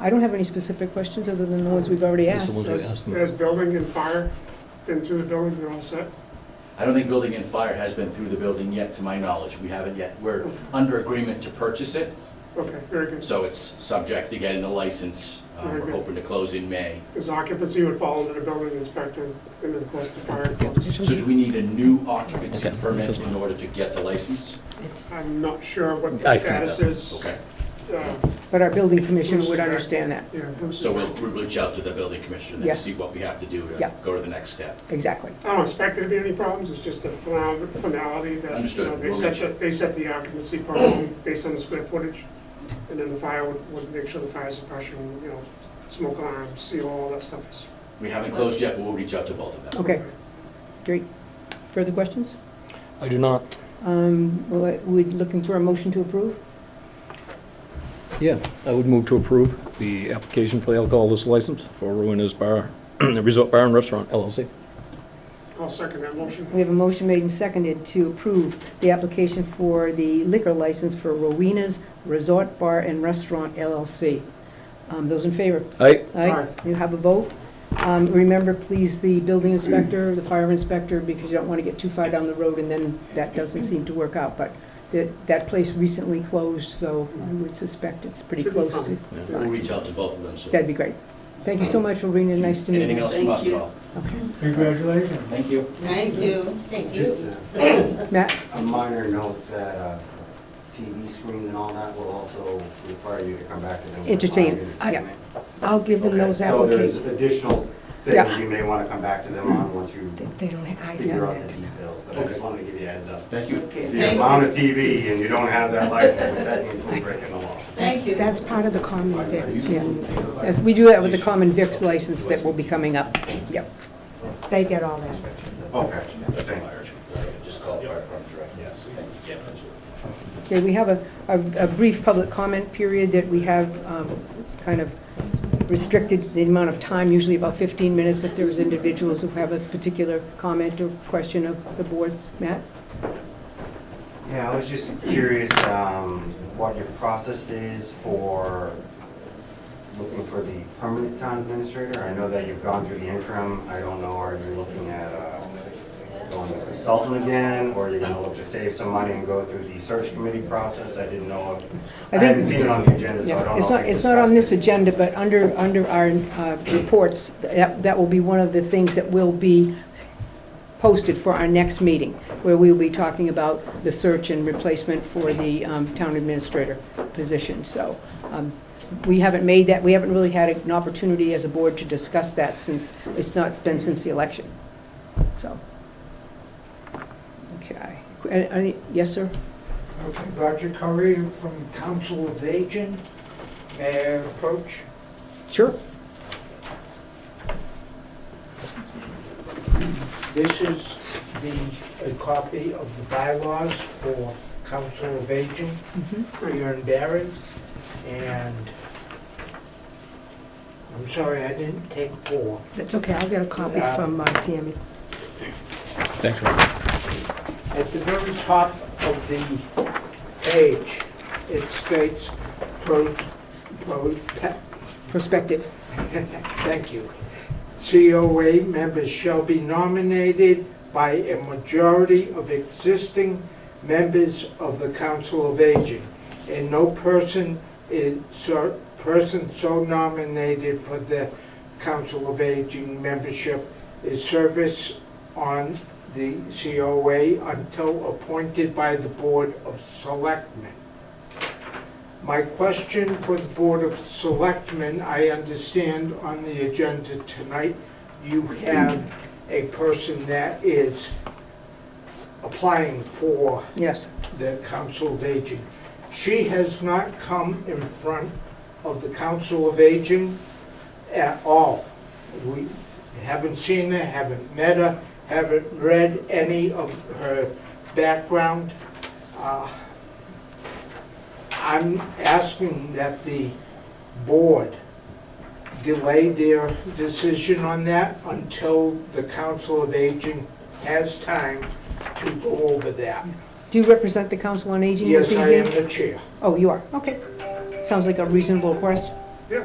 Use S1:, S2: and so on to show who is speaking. S1: I don't have any specific questions other than the ones we've already asked.
S2: Just the ones we asked.
S3: As building and fire, been through the building, they're all set.
S4: I don't think building and fire has been through the building yet, to my knowledge. We haven't yet. We're under agreement to purchase it,
S3: Okay, very good.
S4: so it's subject to getting the license. Uh,
S3: Very
S4: We're
S3: good.
S4: hoping to close in May.
S3: Because occupancy would fall under the building inspector and of course the fire. department.
S4: So do we need a new occupancy
S2: Okay.
S4: permit in order to get the license?
S5: It's,
S3: I'm not sure what
S2: I
S3: the
S2: think
S3: status is.
S4: Okay,
S3: Uh,
S1: But our building commissioner would understand that,
S3: Yeah. who's-
S4: so we'll we'll reach out to the building commissioner
S1: Yeah.
S4: and see what we have to do
S1: Yeah.
S4: to go to the next step.
S1: exactly.
S3: I don't expect there to be any problems, it's just a phenom- finality that, you
S4: Understood.
S3: know, they
S4: We'll
S3: set,
S4: reach-
S3: the- they set the occupancy per home based on the square footage, and then the fire would, would make sure the fire suppression, you know, smoke alarm, seal, all that stuff is.
S4: We haven't closed yet, but we'll reach out to both of them.
S1: Okay, great. Further questions?
S2: I do not.
S1: Um, We're we're looking for a motion to approve?
S2: Yeah, I would move to approve the application for the alcohol liquor license for Ruiners Bar, Resort Bar and Restaurant LLC.
S3: I'll second that motion.
S1: We have a motion made and seconded to approve the application for the liquor license for Rowena's Resort Bar and Restaurant LLC. Um, Those in favor?
S2: Aye.
S3: Aye.
S1: You have a vote. Um, Remember, please, the building inspector, the fire inspector, because you don't want to get too far down the road, and then that doesn't seem to work out. But that, that place recently closed, so I would suspect it's pretty
S3: Should be
S1: close to.
S3: fine.
S4: We'll reach out to both of them, so.
S1: That'd be great. Thank you so much, Rowena, nice to meet you.
S4: Anything else from
S5: Thank
S4: us at
S5: you.
S4: all?
S6: Congratulations.
S4: Thank you.
S5: thank you.
S7: Just a-
S1: Matt,
S7: a minor note that uh, TV screens and all that will also require you to come back to them. with
S1: Entertain, Ah,
S7: five minutes.
S1: yeah. I'll give them
S7: Okay,
S1: those
S7: So there's
S1: applications.
S7: additional
S1: Yeah.
S7: things you may want to come back to them on once you
S8: They don't, ha- I sent
S7: figure out the
S8: that to them.
S7: details, but I just wanted to give you a heads up.
S4: Thank you.
S5: Okay,
S7: The
S5: thank,
S7: amount of TV and you don't have that license, that includes breaking the law.
S5: thank you.
S8: That's part of the common vic.
S1: Yeah. Yes, We do that with the common Vic's license that will be coming up. Yep.
S8: They get all that.
S7: Okay, thank you.
S4: Just call fire department director. Yes.
S1: Okay, we have a, a a brief public comment period that we have um, kind of restricted the amount of time, usually about 15 minutes, if there's individuals who have a particular comment or question of the board. Matt?
S7: Yeah, I was just curious um, what your process is for looking for the permanent town administrator. I know that you've gone through the interim. I don't know, are you looking at uh, going to consultant again? Or are you going to look to save some money and go through the search committee process? I didn't know. if- I
S1: think-
S7: haven't seen it on the agenda, so I
S1: Yeah,
S7: don't know.
S1: It's
S7: if
S1: not,
S7: we
S1: it's not on this
S7: discussed it.
S1: agenda, but under, under our uh, reports, that, that will be one of the things that will be posted for our next meeting, where we'll be talking about the search and replacement for the um, town administrator position. So um, we haven't made that, we haven't really had an opportunity as a board to discuss that since, it's not been since the election. So. Okay. Any- any- Yes, sir?
S6: Okay, Roger Curry from Council of Aging. May I approach?
S1: Sure.
S6: This is the, a copy of the bylaws for Council of Aging here in Barron. And I'm sorry, I didn't take four.
S8: That's okay, I'll get a copy
S6: Yeah.
S8: from uh, Tammy.
S2: Thanks, Roger.
S6: At the very top of the page, it states pro, pro,
S1: Perspective.
S6: Thank you. COA members shall be nominated by a majority of existing members of the Council of Aging, and no person is, so- person so nominated for the Council of Aging membership is service on the COA until appointed by the Board of Selectmen. My question for the Board of Selectmen, I understand on the agenda tonight, you have a person that is applying for
S1: Yes.
S6: the Council of Aging. She has not come in front of the Council of Aging at all. We haven't seen her, haven't met her, haven't read any of her background. Uh, I'm asking that the board delay their decision on that until the Council of Aging has time to go over that.
S1: Do you represent the Council on Aging this
S6: Yes,
S1: evening?
S6: I am the chair.
S1: Oh, you are, okay. Sounds like a reasonable request.
S3: Yeah.